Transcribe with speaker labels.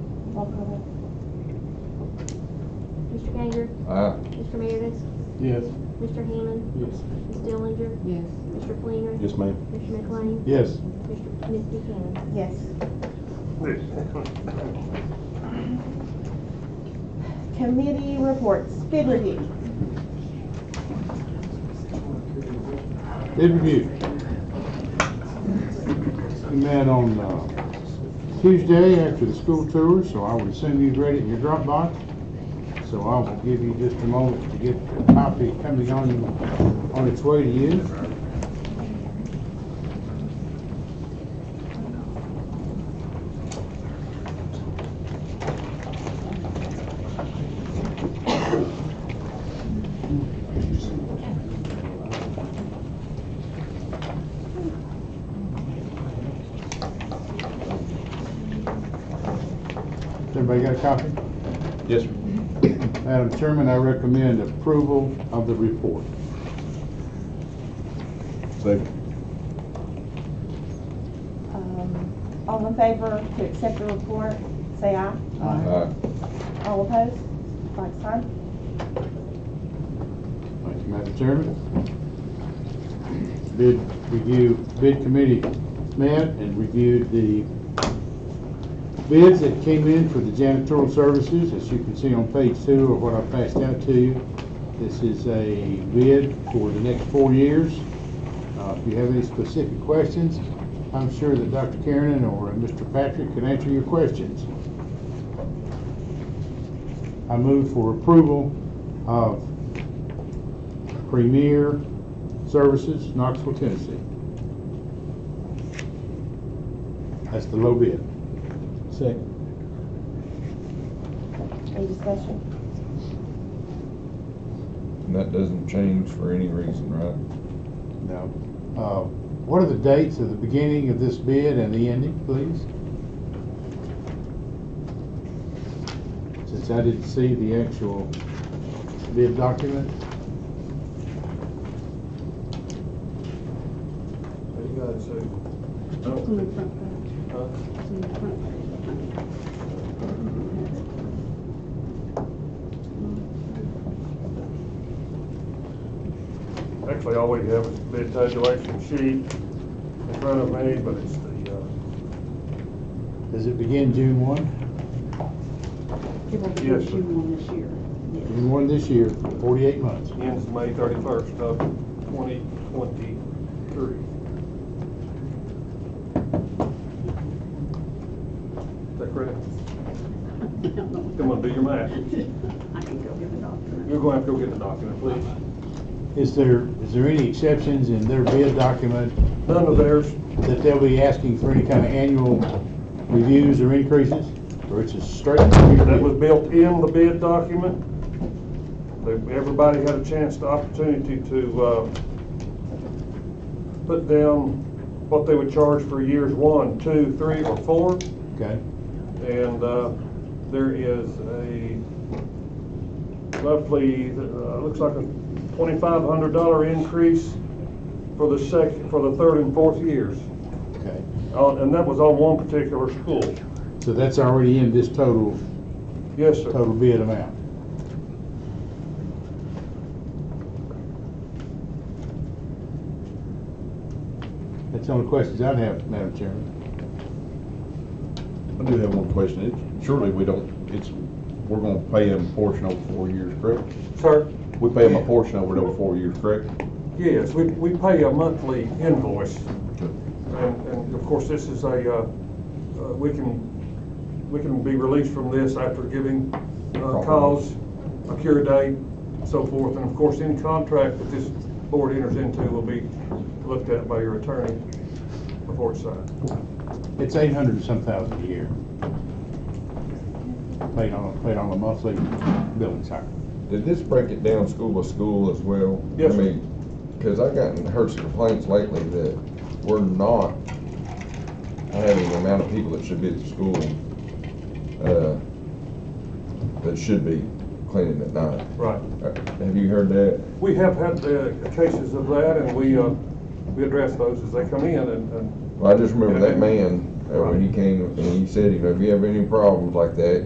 Speaker 1: Roll call vote. Mr. Gager,
Speaker 2: Aye.
Speaker 1: Mr. Meredith,
Speaker 3: Yes.
Speaker 1: Mr. Hammond,
Speaker 3: Yes.
Speaker 1: Ms. Dillinger,
Speaker 4: Yes.
Speaker 1: Mr. Fleener,
Speaker 2: Yes, ma'am.
Speaker 1: Mr. McLean,
Speaker 3: Yes.
Speaker 1: Mr. Ms. Buchanan.
Speaker 4: Yes. Committee reports, bid review.
Speaker 3: Bid review. We met on uh, Tuesday after the school tour, so I would assume you've read it in your Dropbox. So I will give you just a moment to get the copy coming on, on its way to you. Everybody got a copy?
Speaker 2: Yes, sir.
Speaker 3: Madam Chairman, I recommend approval of the report.
Speaker 2: Second.
Speaker 4: Um, All in favor to accept the report, say aye.
Speaker 2: Aye.
Speaker 4: All opposed, like sign.
Speaker 3: Thank you, Madam Chairman. Bid review, bid committee met and reviewed the bids that came in for the janitorial services, as you can see on page two of what I passed out to you. This is a bid for the next four years. Uh, if you have any specific questions, I'm sure that Dr. Kiernan or Mr. Patrick can answer your questions. I move for approval of Premier Services, Knoxville, Tennessee. That's the low bid. Second.
Speaker 4: Any discussion?
Speaker 2: And that doesn't change for any reason, right?
Speaker 3: No. Uh, What are the dates of the beginning of this bid and the ending, please? Since I didn't see the actual bid document.
Speaker 5: You got it, Sue. Oh. Actually, all we have is bid tabulation sheet in front of me, but it's the, uh,
Speaker 3: Does it begin June 1?
Speaker 6: It will be
Speaker 5: Yes, sir.
Speaker 6: June one this year.
Speaker 3: June 1 this year, 48 months.
Speaker 5: ends May thirty-first of twenty twenty-three. Is that correct? Come on, do your math.
Speaker 6: I can go get the doctor.
Speaker 5: You're gonna have to go get the document, please.
Speaker 3: Is there, is there any exceptions in their bid document
Speaker 5: None of theirs,
Speaker 3: that they'll be asking for any kind of annual reviews or increases, or it's just straight?
Speaker 5: that was built in the bid document. They- Everybody had a chance, the opportunity to, uh, put down what they would charge for years one, two, three, or four.
Speaker 3: Okay,
Speaker 5: And, uh, there is a roughly, uh, looks like a twenty-five hundred dollar increase for the second, for the third and fourth years.
Speaker 3: okay.
Speaker 5: Uh, and that was on one particular school.
Speaker 3: So that's already in this total,
Speaker 5: Yes, sir.
Speaker 3: total bid amount. That's the only questions I'd have, Madam Chairman.
Speaker 2: I do have one question. It- Surely we don't, it's, we're gonna pay them a portion over four years, correct?
Speaker 5: Sir?
Speaker 2: We pay them a portion over those four years, correct?
Speaker 5: Yes, we, we pay a monthly invoice,
Speaker 2: Okay.
Speaker 5: and, and of course, this is a, uh, uh, we can, we can be released from this after giving, uh,
Speaker 2: Proper.
Speaker 5: cause, a cure date, so forth, and of course, any contract that this board enters into will be looked at by your attorney before it's signed.
Speaker 3: It's eight hundred and some thousand a year. Paid on, paid on a monthly billing cycle.
Speaker 2: Did this break it down school by school as well?
Speaker 5: Yes,
Speaker 2: I
Speaker 5: sir.
Speaker 2: mean, cause I gotten heard some complaints lately that we're not having the amount of people that should be at the school, uh, that should be cleaning at night.
Speaker 5: Right.
Speaker 2: Uh, Have you heard that?
Speaker 5: We have had, uh, cases of that, and we, uh, we address those as they come in, and, and
Speaker 2: Well, I just remember that man, uh, when he came and he said, you know, if you have any problems like that,